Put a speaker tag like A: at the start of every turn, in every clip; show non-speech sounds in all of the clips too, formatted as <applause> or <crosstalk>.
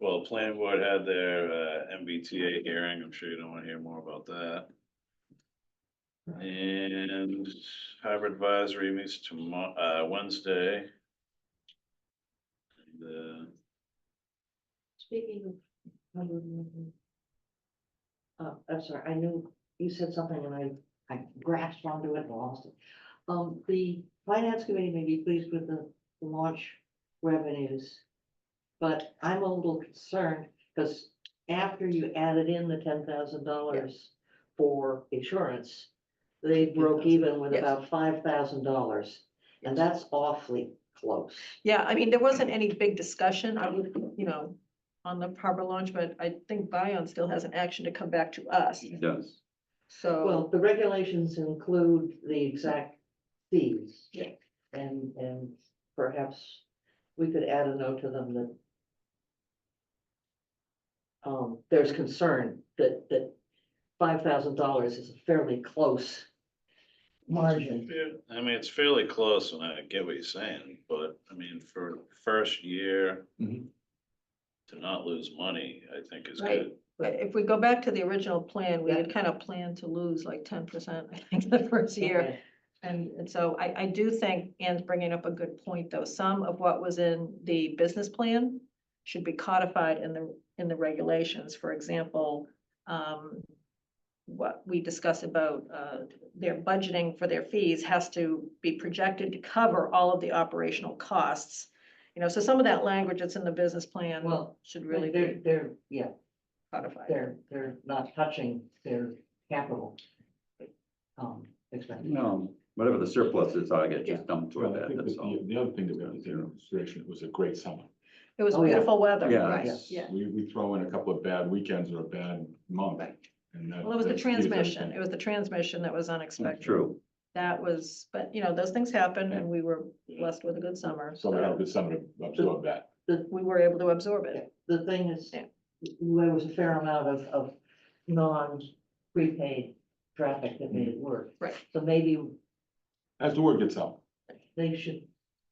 A: Well, planning board had their uh MBTA hearing, I'm sure you don't wanna hear more about that. And hybrid advisory meets tomorrow, uh, Wednesday. uh, The,
B: Speaking of. um, Uh, I'm sorry, I knew you said something and I, I grasped onto it and lost it. Um, the finance committee may be pleased with the launch revenues. But I'm a little concerned because after you added in the ten thousand dollars for insurance. They broke even with
C: Yes.
B: about five thousand dollars and that's awfully close.
C: Yeah, I mean, there wasn't any big discussion on, you know, on the harbor launch, but I think Bion still has an action to come back to us.
D: It does.
C: So,
B: Well, the regulations include the exact fees.
C: Yeah.
B: And, and perhaps we could add a note to them that um, there's concern that, that five thousand dollars is a fairly close margin.
A: I mean, it's fairly close and I get what you're saying, but I mean, for first year.
D: Mhm.
A: To not lose money, I think is
C: Right.
A: good.
C: but if we go back to the original plan, we had
B: Yeah.
C: kind of planned to lose like ten percent, I think, the first year.
B: Okay.
C: And, and so I, I do think Anne's bringing up a good point, though. Some of what was in the business plan should be codified in the, in the regulations. For example, um, what we discuss about, uh, their budgeting for their fees has to be projected to cover all of the operational costs. You know, so some of that language that's in the business plan
B: Well,
C: should really
B: They're,
C: be
B: they're, yeah,
C: codified.
B: they're, they're not touching their capital. Um, expenditure.
D: No, whatever the surplus is, I get
C: Yeah.
D: just dumped
E: Well,
D: toward
E: I
D: that,
E: think that
D: that's all.
E: The the other thing that we have to take into consideration, it was a great summer.
C: It was
B: Oh, yeah.
C: beautiful weather,
D: Yeah,
C: right,
B: yes.
C: yeah.
E: We, we throw in a couple of bad weekends or a bad month.
C: Right.
E: and that-
C: Well, it was the
E: that skews
C: transmission. It
E: everything.
C: was the transmission that was unexpected.
D: True,
C: That was, but you know, those things happen and we were blessed with a good summer,
E: So we had a
C: so
E: good summer to absorb that.
C: we were able to absorb
B: Yeah,
C: it.
B: The thing is,
C: Yeah.
B: there was a fair amount of, of non-prepaid traffic that made it work.
C: Mm-hmm. Right.
B: So maybe
E: As the word gets out,
B: they should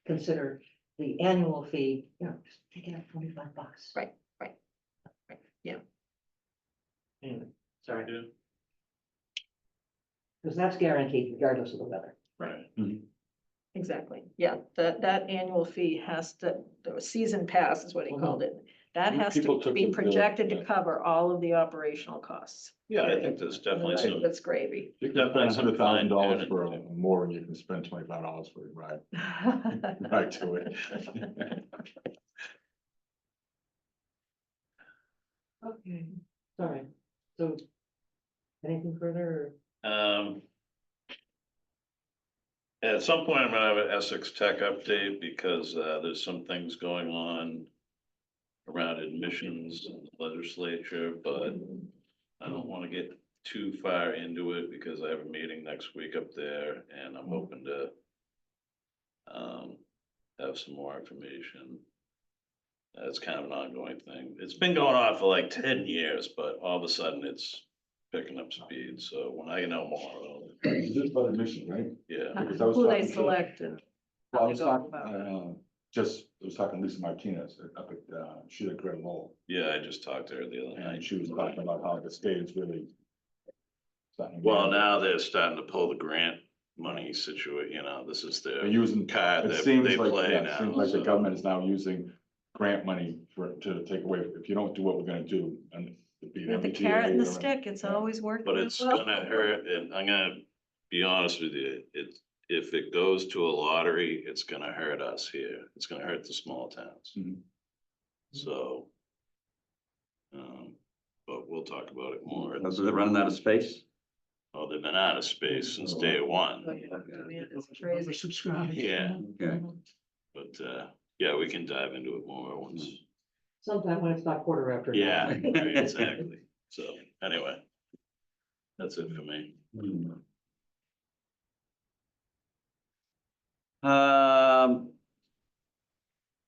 B: consider the annual fee, you know, just take it out twenty-five bucks.
C: Right, right, right, yeah.
B: Anyway, sorry, because that's guaranteed regardless of the weather.
A: Right,
C: Exactly, yeah, that, that annual fee has to, the season pass is what he
E: Mhm.
C: called it. That
E: You
C: has to
E: people took
C: be
E: the bill,
C: projected to
E: yeah.
C: cover all of the operational costs.
A: yeah, I think there's definitely some,
C: That's
E: <laughs>
C: gravy.
E: you can spend
A: That's
E: hundred thousand dollars
A: fine.
E: for a- more and you can spend twenty-five dollars for a ride, <laughs>
C: <laughs>
E: ride to it.
B: Okay. Sorry, so anything further?
A: um. At some point, I'm gonna have an Essex Tech update because uh there's some things going on. Around admissions and legislature, but I don't wanna get too far into it because I have a meeting next week up there and I'm hoping to. Um, have some more information. That's kind of an ongoing thing. It's been going on for like ten years, but all of a sudden it's picking up speed, so when I know more, I'll-
E: Just about admission, right?
A: yeah.
E: Because I was
C: Who they
E: talking to-
C: select and how
E: Well, I
C: they
E: was
C: go
E: talking,
C: about. it.
E: uh, just, I was talking to Lisa Martinez up at, uh, she had Great Lowell.
A: Yeah, I just talked to her the other
E: And
A: night.
E: she was talking about how the state is really. starting to-
A: Well, now they're starting to pull the grant money situation, you know, this is
E: They're
A: their
E: using,
A: card
E: it
A: that
E: seems
A: they
E: like,
A: play
E: yeah, it
A: now.
E: seems like the
A: so-
E: government is now using grant money for, to take away, if you don't do what we're gonna do and. it'd be an
C: With the
E: MBTA
C: carrot and the
E: or-
C: stick, it's
E: yeah.
C: always working.
A: But it's
C: <laughs> well.
A: gonna hurt, and I'm gonna be honest with you, it, if it goes to a lottery, it's gonna hurt us here. It's gonna hurt the small towns,
E: Mhm.
A: so. Um, but we'll talk about it more.
D: that's it running out of space.
A: Oh, they've been out of space since day one,
C: Man, it's crazy.
A: yeah,
D: Okay,
A: but, uh, yeah, we can dive into it more once.
B: Sometime when it's not quarter after. <laughs>
A: Yeah, right, exactly. So anyway. That's it for me.
D: Um.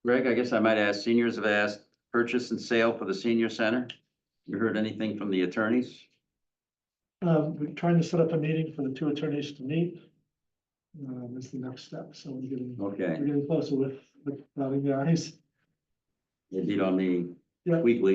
D: Greg, I guess I might ask, seniors have asked purchase and sale for the senior center. You heard anything from the attorneys?
F: Um, we're trying to set up a meeting for the two attorneys to meet. Um, is the next step, so we're getting, we're
D: Okay,
F: getting closer with, with, uh, the guys.
D: indeed on the
F: Yeah.
D: weekly.